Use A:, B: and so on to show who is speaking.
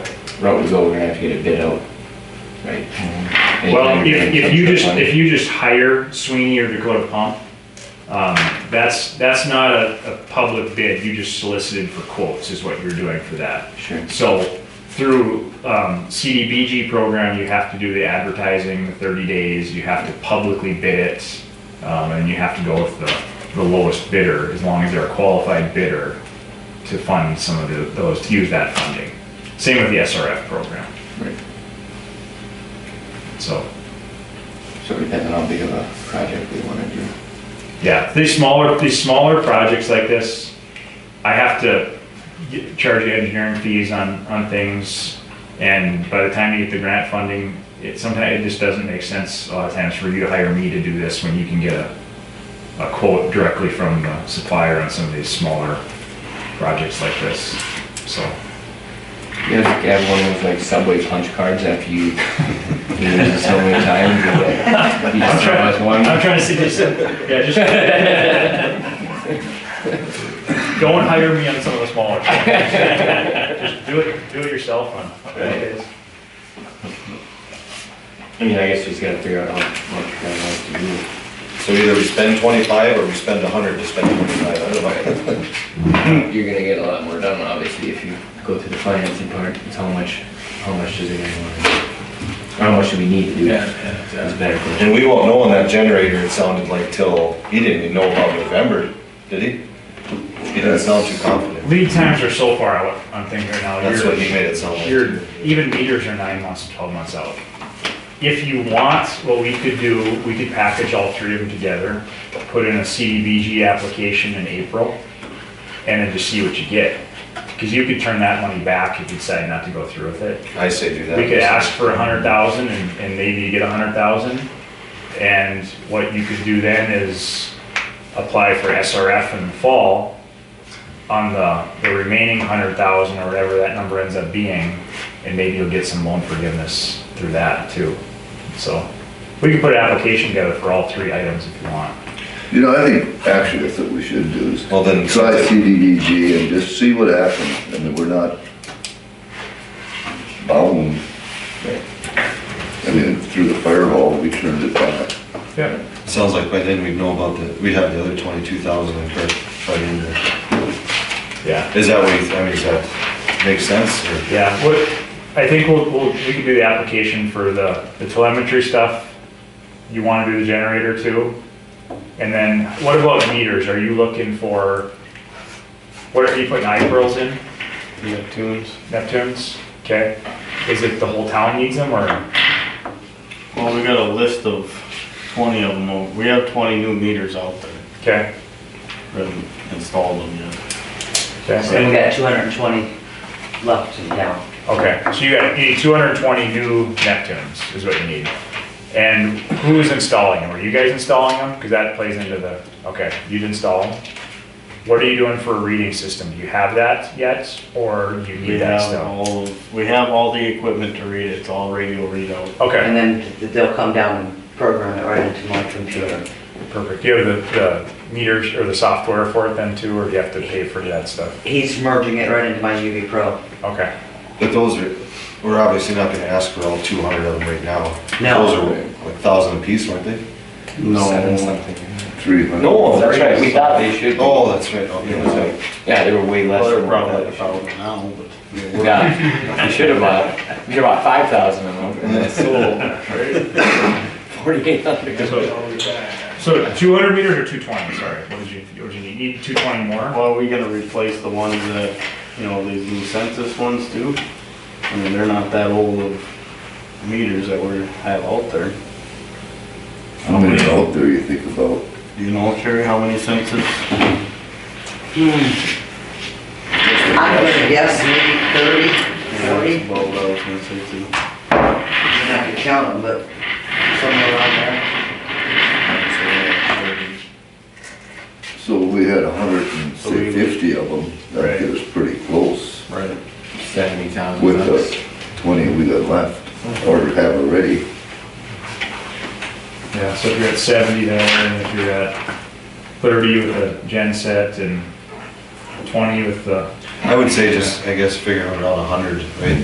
A: route we go, we're gonna have to get a bid out, right?
B: Well, if, if you just, if you just hire Sweeney or Dakota Pump, um, that's, that's not a, a public bid, you just solicited for quotes is what you're doing for that.
A: Sure.
B: So through, um, CDBG program, you have to do the advertising, the thirty days, you have to publicly bid it, um, and you have to go with the, the lowest bidder, as long as they're a qualified bidder to fund some of the- those, to use that funding. Same with the SRF program,
A: Right.
B: so.
A: So depending on how big of a project we wanna do.
B: Yeah, these smaller, these smaller projects like this, I have to get- charge you engineering fees on, on things. And by the time you get the grant funding, it sometimes, it just doesn't make sense a lot of times for you to hire me to do this when you can get a, a quote directly from the supplier on some of these smaller projects like this, so.
A: You have to have one of those like subway punch cards after you, you use it so many times, you're like, you just throw us one.
B: I'm trying to see this, yeah, just. Don't hire me on some of the smaller projects. Just do it, do it yourself on.
A: Right. I mean, I guess we just gotta figure out how much we want to do.
C: So either we spend twenty-five or we spend a hundred to spend twenty-five, I don't know.
A: You're gonna get a lot more done, obviously, if you go through the financing part, it's how much, how much does it gonna want? How much do we need to do? That's a better question.
C: And we won't know on that generator, it sounded like till, he didn't even know about November, did he? He didn't sound too confident.
B: Lead times are so far out on things right now.
C: That's
B: you're-
C: what he made it sound like.
B: Your, even meters are nine months to twelve months out. If you want, what we could do, we could package all three of them together, put in a CDBG application in April, and then just see what you get. Cause you could turn that money back if you decide not to go through with it.
C: I say do that.
B: We could ask for a hundred thousand and, and maybe you get a hundred thousand. And what you could do then is apply for SRF in the fall on the, the remaining hundred thousand or whatever that number ends up being. And maybe you'll get some loan forgiveness through that too. So we can put an application together for all three items if you want.
D: You know, I think actually that's what we should do is
C: Well, then-
D: try CDBG and just see what happens and then we're not bound. I mean, through the firewall, we turned it back.
B: Yeah.
C: Sounds like by then we'd know about the, we'd have the other twenty-two thousand in credit by the end of-
B: Yeah.
C: Is that what, you- I mean, does that make sense or?
B: Yeah, what, I think we'll, we'll, we can do the application for the, the telemetry stuff. You wanna do the generator too? And then what about meters? Are you looking for, what are you putting eye pearls in?
E: Neptune's.
B: Neptunes? Okay. Is it the whole town needs them or?
E: Well, we got a list of twenty of them. We have twenty new meters out there.
B: Okay.
E: We haven't installed them yet.
F: So we
B: Okay,
F: got two hundred and twenty left in town.
B: Okay, so you got, you need two hundred and twenty new Neptunes is what you need. And who is installing them? Are you guys installing them? Cause that plays into the, okay, you'd install them. What are you doing for a reading system? Do you have that yet or do you
E: We
B: need that
E: have
B: still?
E: all, we have all the equipment to read it. It's all radio readout.
B: Okay,
F: And then th- they'll come down and program it right into my computer.
B: perfect. Do you have the, the meters or the software for it then too, or do you have to pay for that stuff?
F: He's merging it right into my UV Pro.
B: Okay,
C: But those are, we're obviously not gonna ask for all two hundred of them right now.
F: No.
C: Those are like thousand apiece, weren't they?
A: Seven something.
D: Three hundred.
A: that's right, we thought they should. be.
C: Oh, that's right, okay, that's right.
A: Yeah, they were way less
E: Well,
A: than
E: they're probably,
A: what
E: they're
A: we thought.
E: probably now, but.
A: Yeah, we should have bought, we should have bought five thousand of them, and then sold forty-eight hundred.
B: so two hundred meters or two twenty, sorry, what did you, what did you need? You Need two twenty more?
E: Well, we gotta replace the ones that, you know, these new census ones do. I mean, they're not that old of meters that we have out there.
D: How many out there you think about?
E: Do you know, Sherry, how many census?
F: I'm gonna guess maybe thirty, forty,
E: About what I was gonna say too.
F: I'm not gonna count them, but somewhere around there.
D: So we had a hundred and
E: So
D: say
E: we-
D: fifty of them. That
E: Right.
D: gives us pretty close
E: Right.
A: Seventy thousand.
D: with the twenty we got left or have already.
B: Yeah, so if you're at seventy there, and if you're at thirty with the gen set and twenty with the
C: I would say just, I guess, figure out around a hundred, right?